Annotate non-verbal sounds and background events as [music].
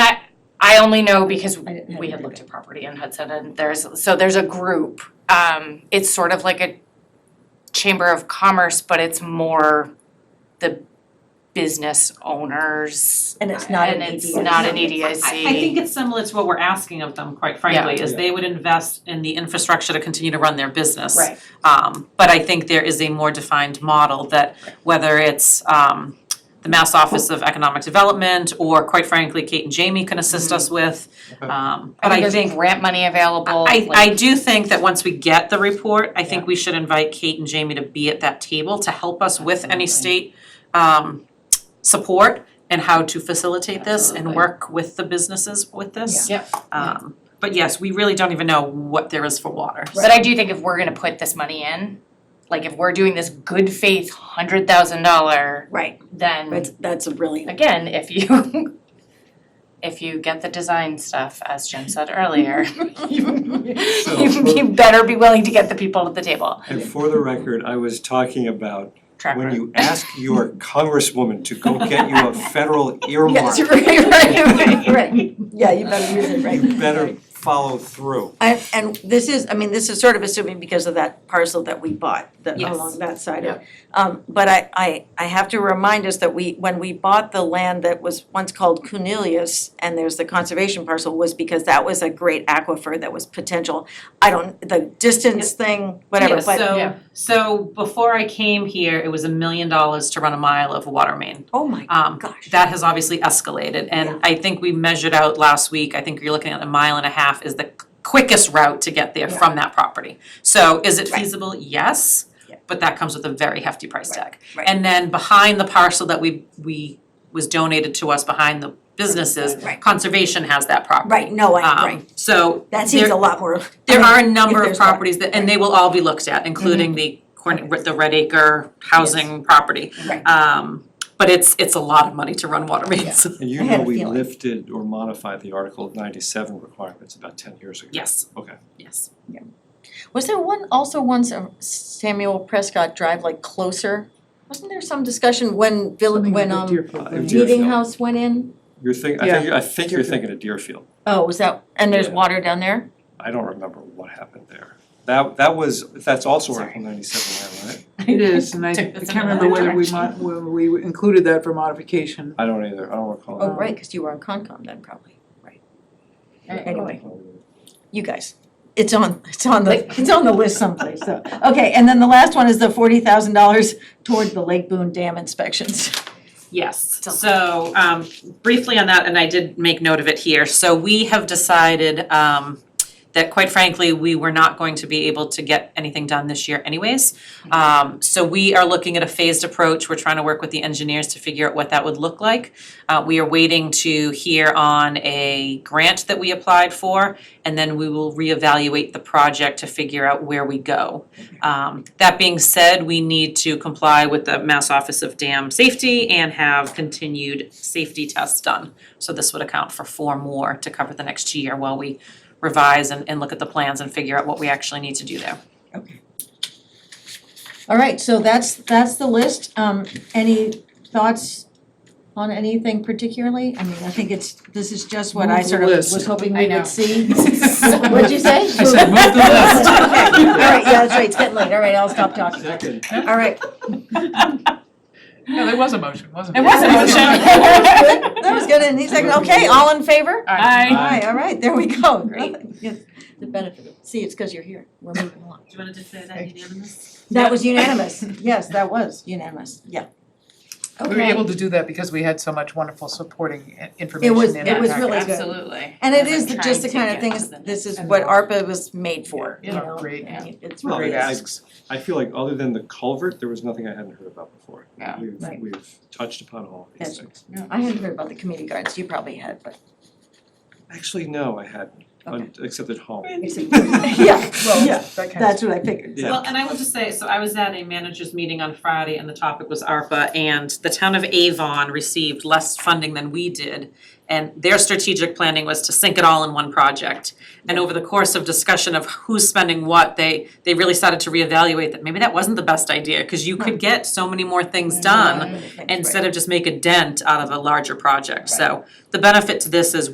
only know because I didn't- I we had didn't looked at property in Hudson and there's, so there's a group. Um, it's sort of like a chamber of commerce, but it's more the business owners. And it's not an And E it's EDIC. not an E I I think EDIC. it's similar to what we're asking of them, quite frankly, is Yeah. they would invest in the infrastructure to continue to run their business. Right. Um, but I think there is a more defined model that whether it's um the Mass Office of Economic Development or quite frankly, Kate and Jamie can assist us with. Okay. Um, but I there's think, grant money available, I like- I do think that once we get the report, I think we should invite Kate and Jamie to be at that table to help us with any Absolutely. state um support and how to facilitate this and Absolutely. work with the businesses with this. Yep. Um, but yes, we really don't even know what there is for water. But I do think if we're gonna put this money in, like if we're doing this good faith hundred thousand dollar, Right, then that's, that's a brilliant, again, if you [laughs] if you get the design stuff, as Jim said [laughs] earlier, you you better be willing to get the people at the table. And for the record, I was talking about Track when record. you ask [laughs] your congresswoman to go get you a federal earmark, yes, [laughs] you right, right, [laughs] right, yeah, you better use it, right. better follow through. And, and this is, I mean, this is sort of assuming because of that parcel that we bought, that Yes. along that side of. Um, but I, I, I have to remind us that we, when we bought the land that was once called Cunilius, and there's the conservation parcel, was because that was a great aquifer that was potential. I don't, the distance thing, whatever, Yeah, but, yeah. so so before I came here, it was a million dollars to run a mile of water main. oh my Um, gosh. That has obviously escalated, Yeah. and I think we measured out last week, I think you're looking at a mile and a half is the quickest route to get there Yeah. from that property. So is it Right. feasible? Yes, Yeah. but that comes with a very hefty price Right, tag. right. And then behind the parcel that we we was donated to us behind the businesses, Right. conservation has that property. Right, no, I, Um, right, So that seems there- a lot more, I there mean, are a number if there's of Mm-hmm. one. properties that, and they will all be looked at, including the corn, the Red Acre housing property. Right. Um, but it's, it's a lot of money to run water mains. [laughs] And you I had know, a we feeling. lifted or modified the Article ninety-seven requirements about ten years ago. Yes, Okay. yes. Was there one, also once um, Samuel Prescott Drive, like closer? Wasn't there some discussion when Bill, when um Uh, if Meeting Deerfield- House went in? You're think, I think, I think you're thinking of Deerfield. Oh, was that, and there's Yeah. water down there? I don't remember what happened there. That, that was, that's also Article ninety-seven, land, right? It is, [laughs] and I I Took us in can't remember another whether we mo- whether we included that for modification. I don't either, I don't recall. Oh, right, cause you were on Concom then probably, right. Anyway, you guys, it's on, it's on the, it's on the list someplace, so. Okay, and then the last one is the forty thousand dollars toward the Lake Boone Dam inspections. Yes, so um briefly on that, and I did make note of it here, so we have decided um that quite frankly, we were not going to be able to get anything done this year anyways. Um so we are looking at a phased approach, we're trying to work with the engineers to figure out what that would look like. Uh we are waiting to hear on a grant that we applied for, and then we will reevaluate the project to figure out where we go. Um, that being said, we need to comply with the Mass Office of Dam Safety and have continued safety tests done. So this would account for four more to cover the next year while we revise and, and look at the plans and figure out what we actually need to do there. All right, so that's, that's the list. Um, any thoughts on anything particularly? I mean, I think it's, this is just what I Move the sort of list. was hoping I we know. would see. What'd you say? I said, move the list. [laughs] Okay, all right, yeah, that's right, it's getting late, all right, I'll stop talking. Second. All right. No, there was a motion, wasn't There was a motion. That was good. That was good, and he's like, okay, [laughs] all in favor? Aye. Aye, all right, there we go. Great. Yes, The benefit of, see, it's because you're here, we're moving along. Do you wanna declare that unanimous? That was unanimous, yes, that was unanimous, yeah. We were Okay. able to do that because we had so much wonderful supporting i- It information was, in our it was packet. really good. Absolutely. And it Because is I'm the- just the trying kind to of thing, get is- to the this is next what level. ARPA was made for, you Yeah, know? great. and It's Well, really I- I- asks. I feel like other than the culvert, there was nothing I hadn't heard about before. Yeah. We've, Right. we've touched upon all of Yes. these things. I hadn't heard about the community gardens, you probably had, but. Actually, no, I hadn't, un- except at home. [laughs] [laughs] Yeah, well, Yeah, that kind of. that's what I figured. Yeah. Well, and I will just say, so I was at a managers meeting on Friday and the topic was ARPA and the town of Avon received less funding than we did. And their strategic planning was to sink it all in one project. And over the course of discussion of who's spending what, they they really started to reevaluate that maybe that wasn't the best idea, cause you could get so many more things done Um, Right. instead of just make a dent out of a larger project, so the benefit to this is